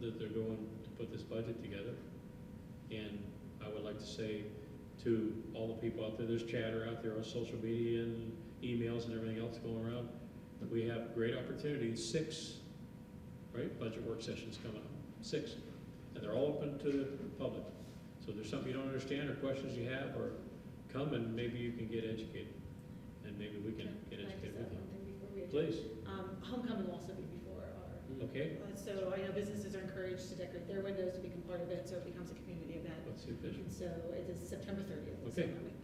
that they're doing to put this budget together. And I would like to say to all the people out there, there's chatter out there on social media and emails and everything else going around. We have great opportunities, six, right, budget work sessions coming up, six. And they're all open to the public. So if there's something you don't understand or questions you have, or come and maybe you can get educated. And maybe we can get Can I educated just with you. add one thing before we? Please, Um, homecoming will also be before our, okay? uh, so I know businesses are encouraged to decorate their windows to become part of it, so it becomes a community event. Let's see if there's, And so it is September thirtieth, so Okay. that week.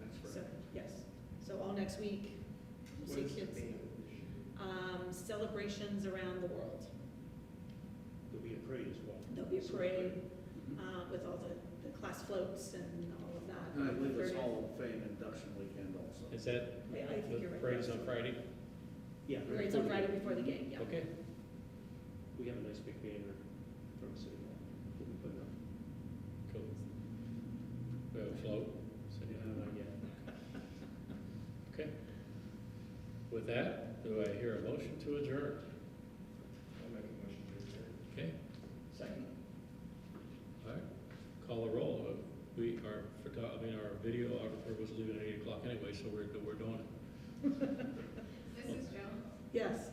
That's So, right. yes, so all next week, you'll What see is the kids. theme? Um, celebrations around the world. There'll be a parade as well. There'll be a parade, uh, with all the, the class floats and all of that. And I believe it's Thirtieth. Hall of Fame induction weekend also. is that, Yeah, I think the you're right. parade's on Friday? Yeah. Right, it's on Friday before the game, yeah. Okay, We have a nice big banner from City Hall. We'll put it up. cool. We have a float, so, Uh, yeah. yeah. okay. With that, do I hear a motion to adjourn? I'll make a motion to adjourn. Okay, Second. all right, call a roll. Uh, We, our, photo- I mean, our video videographer was leaving at eight o'clock anyway, so we're, we're doing it. Mrs. Jones? Yes.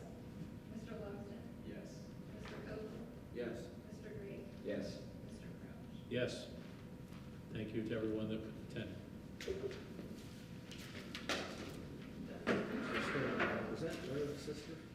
Mr. Longston? Yes. Mr. Coble? Yes. Mr. Green? Yes. Mr. Crouch? Yes. Thank you to everyone that attended. Was that Larry's sister?